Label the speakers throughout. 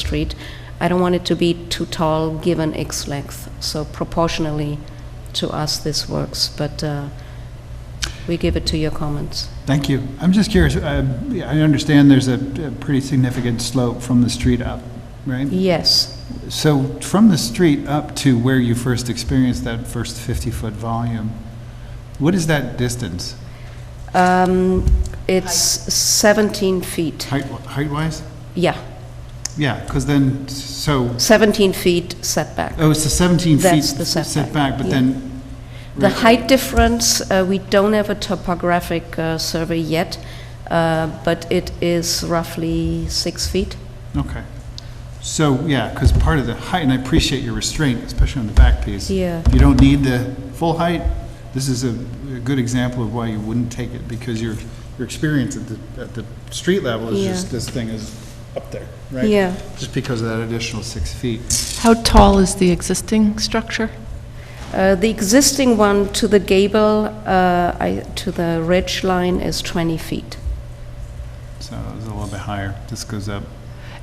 Speaker 1: street. I don't want it to be too tall, given its length, so proportionally to us, this works, but uh, we give it to your comments.
Speaker 2: Thank you. I'm just curious, uh, I understand there's a a pretty significant slope from the street up, right?
Speaker 1: Yes,
Speaker 2: So from the street up to where you first experienced that first 50-foot volume, what is that distance?
Speaker 1: Um, it's 17 feet,
Speaker 2: Height- Height-wise?
Speaker 1: yeah,
Speaker 2: Yeah, because then, so,
Speaker 1: 17 feet setback.
Speaker 2: oh, it's the 17 feet.
Speaker 1: That's the setback,
Speaker 2: but
Speaker 1: yeah.
Speaker 2: then.
Speaker 1: The
Speaker 2: right,
Speaker 1: height difference, uh, we don't have a topographic uh, survey yet, uh, but it is roughly six feet.
Speaker 2: Okay. So, yeah, because part of the height, and I appreciate your restraint, especially on the back piece.
Speaker 1: Yeah.
Speaker 2: You don't need the full height. This is a, a good example of why you wouldn't take it, because your, your experience at the, at the street level is
Speaker 1: Yeah.
Speaker 2: just, this thing is up there, right?
Speaker 1: Yeah.
Speaker 2: Just because of that additional six feet.
Speaker 3: How tall is the existing structure?
Speaker 1: Uh, The existing one to the gable, uh, I- to the ridge line is 20 feet.
Speaker 2: So it's a little bit higher. This goes up.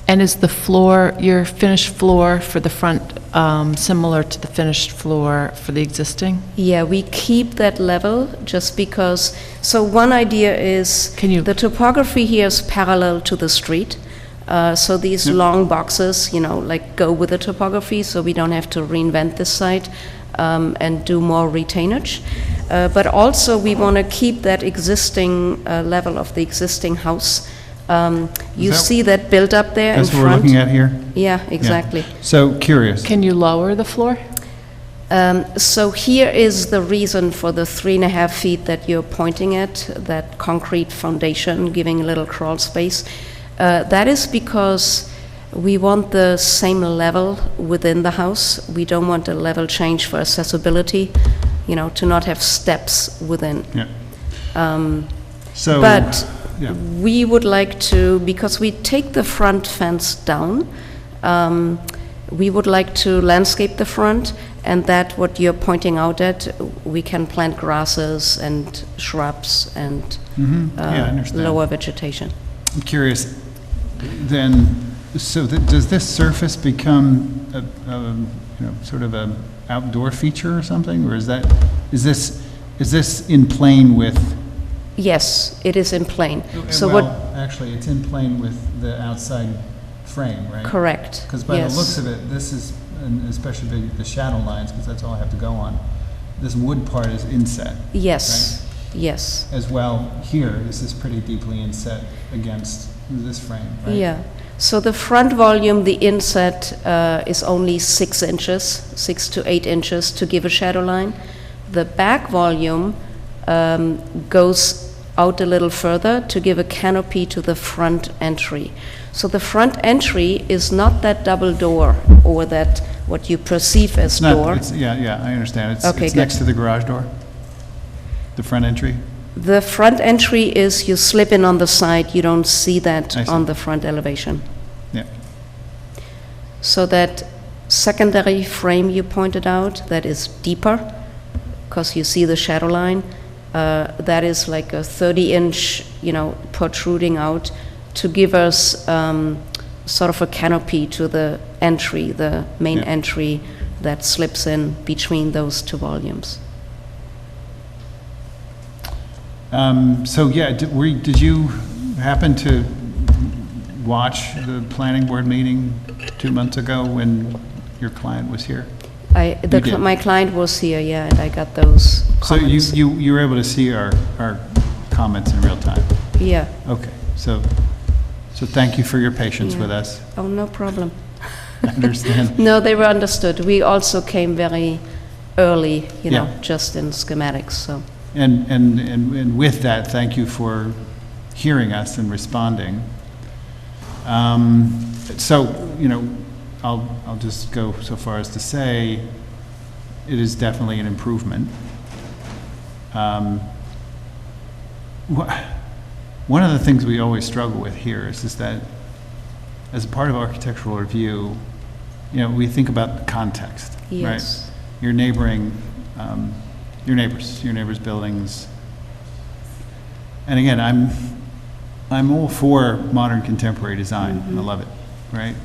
Speaker 3: And is the floor, your finished floor for the front, um, similar to the finished floor for the existing?
Speaker 1: Yeah, we keep that level just because, so one idea is.
Speaker 3: Can you-
Speaker 1: The topography here is parallel to the street. uh, So these long boxes, you know, like go with the topography, so we don't have to reinvent this site um, and do more retainage. Uh, But also, we want to keep that existing uh, level of the existing house. Um, You
Speaker 2: that-
Speaker 1: see that built up there in
Speaker 2: That's
Speaker 1: front?
Speaker 2: what we're looking at here?
Speaker 1: Yeah,
Speaker 2: Yeah.
Speaker 1: exactly.
Speaker 2: So curious.
Speaker 3: Can you lower the floor?
Speaker 1: Um, So here is the reason for the three and a half feet that you're pointing at, that concrete foundation giving a little crawl space. Uh, That is because we want the same level within the house. We don't want a level change for accessibility, you know, to not have steps within.
Speaker 2: Yeah. So.
Speaker 1: Um, But
Speaker 2: Yeah.
Speaker 1: we would like to, because we take the front fence down, um, we would like to landscape the front, and that, what you're pointing out at, we can plant grasses and shrubs and
Speaker 2: Mhm.
Speaker 1: uh,
Speaker 2: Yeah, I understand.
Speaker 1: lower vegetation.
Speaker 2: I'm curious, then, so th- does this surface become, a- a, you know, sort of a outdoor feature or something? Or is that, is this, is this in plane with? eh,
Speaker 1: Yes, it is in plain. So what,
Speaker 2: Well, actually, it's in plane with the outside frame, right?
Speaker 1: correct,
Speaker 2: Because by the
Speaker 1: yes.
Speaker 2: looks of it, this is, and especially the- the shadow lines, because that's all I have to go on. This wood part is inset
Speaker 1: Yes, yes,
Speaker 2: as well. Here, this is pretty deeply inset against this frame, right?
Speaker 1: yeah. So the front volume, the inset, uh, is only six inches, six to eight inches to give a shadow line. The back volume um, goes out a little further to give a canopy to the front entry. So the front entry is not that double door or that, what you perceive as
Speaker 2: It's not-
Speaker 1: door.
Speaker 2: it's- Yeah, yeah, I understand. It's,
Speaker 1: Okay,
Speaker 2: it's
Speaker 1: good.
Speaker 2: next to the garage door, the front entry.
Speaker 1: The front entry is you slip in on the side, you don't see that
Speaker 2: I see.
Speaker 1: on the front elevation.
Speaker 2: Yeah.
Speaker 1: So that secondary frame you pointed out, that is deeper, because you see the shadow line, uh, that is like a 30-inch, you know, protruding out to give us um, sort of a canopy to the entry, the main
Speaker 2: Yeah.
Speaker 1: entry that slips in between those two volumes.
Speaker 2: Um, So, yeah, did, were, you- did you happen to watch the planning board meeting two months ago when your client was here?
Speaker 1: I, the,
Speaker 2: You
Speaker 1: cl-
Speaker 2: did.
Speaker 1: my client was here, yeah, and I got those
Speaker 2: So you,
Speaker 1: comments.
Speaker 2: you, you were able to see our, our comments in real time?
Speaker 1: Yeah,
Speaker 2: Okay, so, so thank you for your patience with
Speaker 1: Yeah.
Speaker 2: us.
Speaker 1: oh, no problem.
Speaker 2: I understand.
Speaker 1: No, they were understood. We also came very early, you know,
Speaker 2: Yeah.
Speaker 1: just in schematics, so,
Speaker 2: And, and, and and with that, thank you for hearing us and responding. Um, So, you know, I'll, I'll just go so far as to say, it is definitely an improvement. Um, wha- One of the things we always struggle with here is, is that, as a part of architectural review, you know, we think about the context, right?
Speaker 1: yes.
Speaker 2: your neighboring, um, your neighbors, your neighbors' buildings. And again, I'm, I'm all for modern contemporary design, and I love it, right?